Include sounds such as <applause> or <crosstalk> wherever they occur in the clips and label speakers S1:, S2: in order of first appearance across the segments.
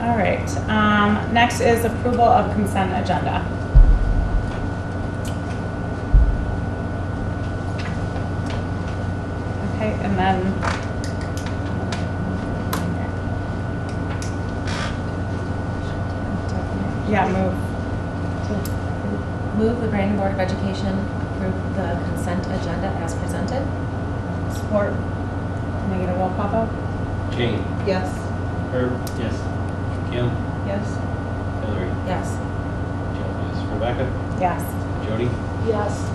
S1: All right, um, next is approval of consent agenda. Okay, and then. Yeah, move.
S2: Move the Brandon Board of Education approve the consent agenda as presented?
S1: Support. Can I get a roll call vote?
S3: Jane,
S4: Yes.
S3: Herb, yes. Kim,
S4: Yes.
S3: Hillary,
S2: Yes.
S3: Joe, yes. Rebecca,
S1: Yes.
S3: Jody,
S4: Yes.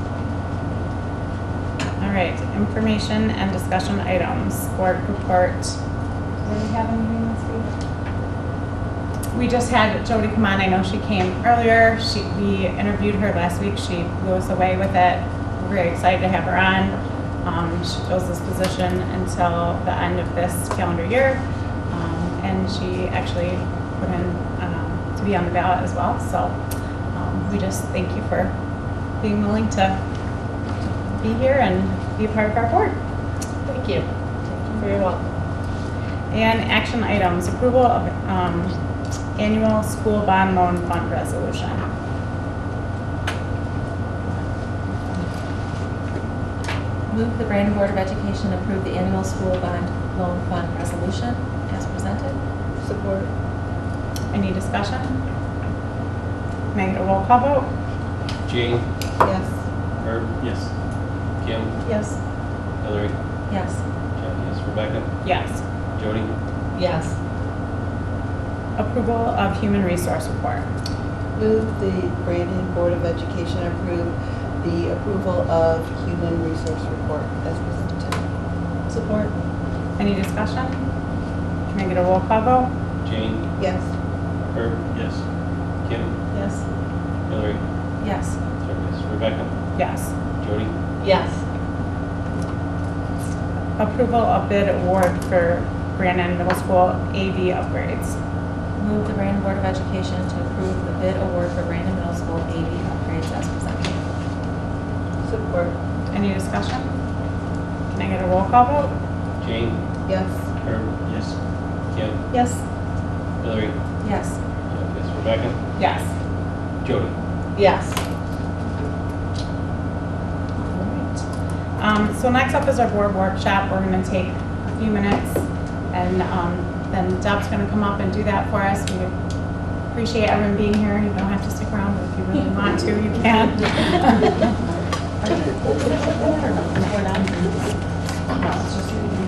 S1: All right, information and discussion items, board report. Do we have anything this week? We just had Jody come on, I know she came earlier, she, we interviewed her last week, she blew us away with it. We're very excited to have her on. Um, she fills this position until the end of this calendar year. Um, and she actually put in, um, to be on the ballot as well, so, um, we just thank you for being willing to be here and be a part of our board.
S4: Thank you. Thank you for your help.
S1: And action items, approval of um, annual school bond loan fund resolution.
S2: Move the Brandon Board of Education approve the annual school bond loan fund resolution as presented?
S4: Support.
S1: Any discussion? Can I get a roll call vote?
S3: Jane,
S4: Yes.
S3: Herb, yes. Kim,
S4: Yes.
S3: Hillary,
S2: Yes.
S3: Joe, yes. Rebecca,
S1: Yes.
S3: Jody,
S4: Yes.
S1: Approval of human resource report.
S5: Move the Brandon Board of Education approve the approval of human resource report as presented.
S4: Support.
S1: Any discussion? Can I get a roll call vote?
S3: Jane,
S5: Yes.
S3: Herb, yes. Kim,
S4: Yes.
S3: Hillary,
S2: Yes.
S3: Joe, yes. Rebecca,
S1: Yes.
S3: Jody,
S4: Yes.
S1: Approval of bid award for Brandon Middle School AV upgrades.
S2: Move the Brandon Board of Education to approve the bid award for Brandon Middle School AV upgrades as presented?
S5: Support.
S1: Any discussion? Can I get a roll call vote?
S3: Jane,
S5: Yes.
S3: Herb, yes. Kim,
S4: Yes.
S3: Hillary,
S2: Yes.
S3: Joe, yes. Rebecca,
S1: Yes.
S3: Jody,
S4: Yes.
S1: Um, so next up is our board workshop. We're gonna take a few minutes and, um, then Deb's gonna come up and do that for us. We appreciate everyone being here. You don't have to stick around, but if you really want to, you can.
S4: <laughs>
S1: We're not. No, it's just-